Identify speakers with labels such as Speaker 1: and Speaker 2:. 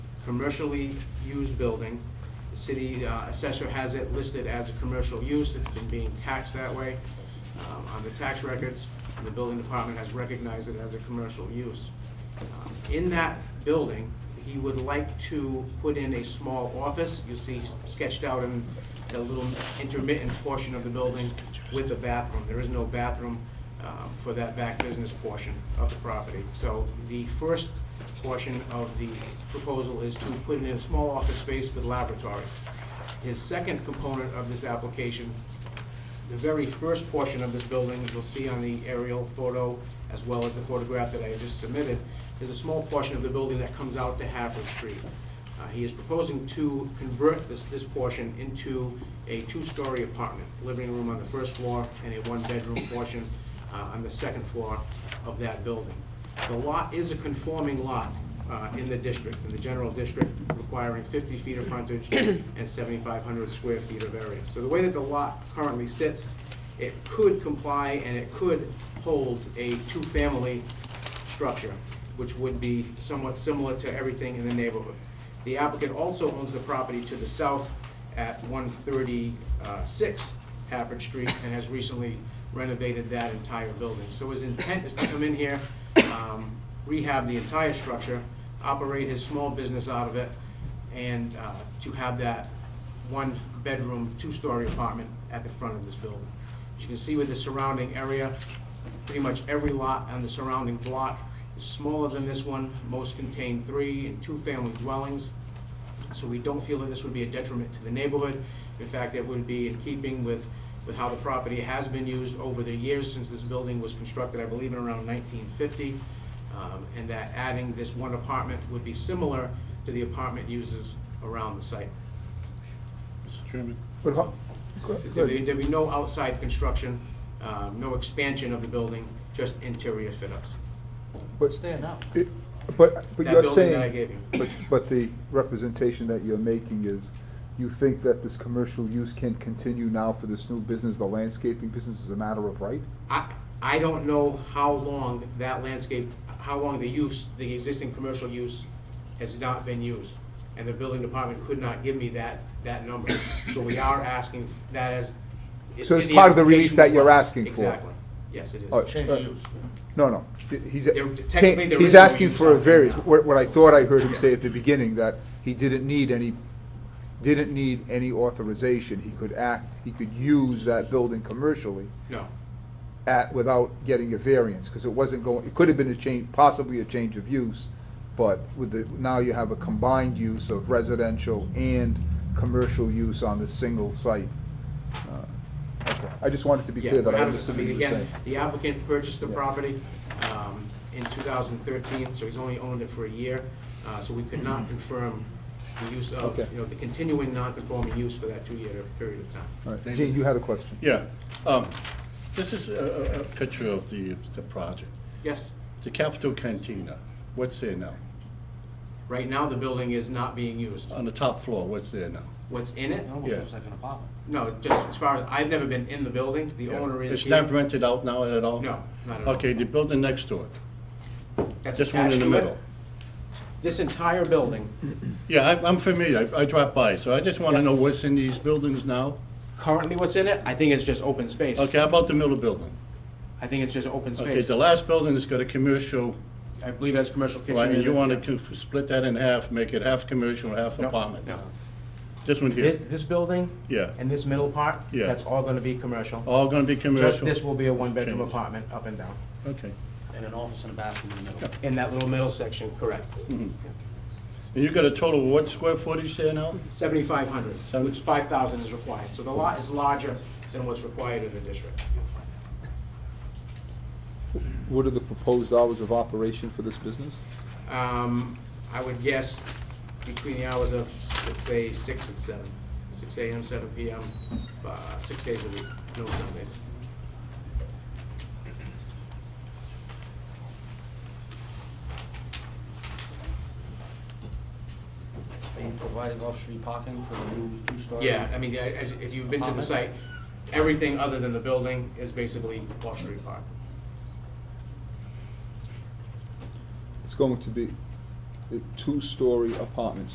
Speaker 1: commercially used building. The city uh, assessor has it listed as a commercial use, it's been being taxed that way um, on the tax records, and the building department has recognized it as a commercial use. Um, In that building, he would like to put in a small office, you see sketched out in a little intermittent portion of the building with a bathroom. There is no bathroom um, for that back business portion of the property. So the first portion of the proposal is to put in a small office space with laboratory. His second component of this application the very first portion of this building, you'll see on the aerial photo, as well as the photograph that I just submitted, is a small portion of the building that comes out to Haverford Street. Uh, He is proposing to convert this, this portion into a two-story apartment, living room on the first floor and a one-bedroom portion uh, on the second floor of that building. The lot is a conforming lot uh, in the district, in the general district, requiring 50 feet of frontage and 7,500 square feet of area. So the way that the lot currently sits, it could comply and it could hold a two-family structure, which would be somewhat similar to everything in the neighborhood. The applicant also owns the property to the south at 136 Hafford Street and has recently renovated that entire building. So his intent is to come in here, um, rehab the entire structure, operate his small business out of it, and uh, to have that one-bedroom, two-story apartment at the front of this building. As you can see with the surrounding area, pretty much every lot on the surrounding block is smaller than this one. Most contain three and two-family dwellings. So we don't feel that this would be a detriment to the neighborhood. In fact, it would be in keeping with, with how the property has been used over the years since this building was constructed, I believe in around nineteen fifty. Um, And that adding this one apartment would be similar to the apartment uses around the site.
Speaker 2: Mr. Chairman,
Speaker 3: But how, go- go
Speaker 1: There'd be,
Speaker 3: ahead.
Speaker 1: there'd be no outside construction, um, no expansion of the building, just interior fit-ups.
Speaker 3: but,
Speaker 4: there now.
Speaker 3: it- but, but
Speaker 1: That
Speaker 3: you're
Speaker 1: building that I
Speaker 3: saying,
Speaker 1: gave you.
Speaker 3: but, but the representation that you're making is, you think that this commercial use can continue now for this new business, the landscaping business is a matter of right?
Speaker 1: I, I don't know how long that landscape, how long the use, the existing commercial use has not been used. And the building department could not give me that, that number. So we are asking that as.
Speaker 3: So it's
Speaker 1: in
Speaker 3: part of the relief
Speaker 1: application
Speaker 3: that
Speaker 1: as
Speaker 3: you're
Speaker 1: well.
Speaker 3: asking for.
Speaker 1: Exactly. Yes, it is.
Speaker 3: Oh,
Speaker 4: Change
Speaker 3: uh,
Speaker 4: of use.
Speaker 3: No, no, He- he's,
Speaker 1: There- technically, there is
Speaker 3: he's
Speaker 1: no
Speaker 3: asking
Speaker 1: use
Speaker 3: for
Speaker 1: out
Speaker 3: a
Speaker 1: there
Speaker 3: variance,
Speaker 1: now.
Speaker 3: what, what I thought I heard him say
Speaker 1: Yes.
Speaker 3: at the beginning, that he didn't need any, didn't need any authorization, he could act, he could use that building commercially
Speaker 1: No.
Speaker 3: at, without getting a variance, because it wasn't going, it could have been a change, possibly a change of use, but with the, now you have a combined use of residential and commercial use on the single site. Uh, Okay, I just wanted to be
Speaker 1: Yeah,
Speaker 3: clear that
Speaker 1: we're
Speaker 3: I
Speaker 1: not-
Speaker 3: understood what
Speaker 1: mean,
Speaker 3: you were
Speaker 1: again,
Speaker 3: saying.
Speaker 1: The applicant purchased the
Speaker 3: Yeah.
Speaker 1: property um, in 2013, so he's only owned it for a year. Uh, So we could
Speaker 2: Mm-hmm.
Speaker 1: not confirm the use of,
Speaker 3: Okay.
Speaker 1: you know, the continuing non-conforming use for that two-year period of time.
Speaker 3: All right, Gene, you had a question.
Speaker 2: yeah, um, this is a, a- a picture of the, the project.
Speaker 1: Yes,
Speaker 2: The Capitol Cantina, what's there now?
Speaker 1: right now, the building is not being used.
Speaker 2: On the top floor, what's there now?
Speaker 1: What's in it?
Speaker 4: It almost
Speaker 2: Yeah.
Speaker 4: looks like an apartment.
Speaker 1: No, just as far as, I've never been in the building, the
Speaker 2: Yeah.
Speaker 1: owner is
Speaker 2: It's
Speaker 1: here.
Speaker 2: not rented out now at all?
Speaker 1: No, not at all.
Speaker 2: Okay, the building next to it,
Speaker 1: That's
Speaker 2: this one
Speaker 1: attached
Speaker 2: in
Speaker 1: to
Speaker 2: the
Speaker 1: it.
Speaker 2: middle.
Speaker 1: This entire building,
Speaker 2: Yeah, I- I'm familiar, I I drop by, so I just want to know what's in these buildings now.
Speaker 1: currently what's in it, I think it's just open space.
Speaker 2: Okay, how about the middle building?
Speaker 1: I think it's just open
Speaker 2: Okay,
Speaker 1: space.
Speaker 2: the last building has got a commercial,
Speaker 1: I believe that's commercial kitchen.
Speaker 2: right, and
Speaker 1: in
Speaker 2: you
Speaker 1: it.
Speaker 2: want to split that in half, make it half commercial, half
Speaker 1: No,
Speaker 2: apartment.
Speaker 1: no.
Speaker 2: This one
Speaker 1: This,
Speaker 2: here,
Speaker 1: this building?
Speaker 2: Yeah.
Speaker 1: And this middle part?
Speaker 2: Yeah.
Speaker 1: That's all gonna be commercial.
Speaker 2: all going to be
Speaker 1: Just
Speaker 2: commercial?
Speaker 1: this will be a one-bedroom
Speaker 2: Change.
Speaker 1: apartment, up and down,
Speaker 2: Okay.
Speaker 4: And an office and a bathroom in the middle.
Speaker 1: in that little middle section, correct.
Speaker 2: Mm. And you got a total of what square footage there now?
Speaker 1: Seventy-five hundred,
Speaker 2: Seven-
Speaker 1: which five thousand is required, so the lot is larger than what's required in the district.
Speaker 3: What are the proposed hours of operation for this business?
Speaker 1: Um, I would guess between the hours of, let's say, six and seven, six AM, seven PM, uh, six days a week, no Sundays.
Speaker 4: Are you providing off-street parking for the new two-story?
Speaker 1: Yeah, I mean, I- I- if you've been to the site, everything other than the building is basically off-street park.
Speaker 3: uh, It's going to be a two-story apartment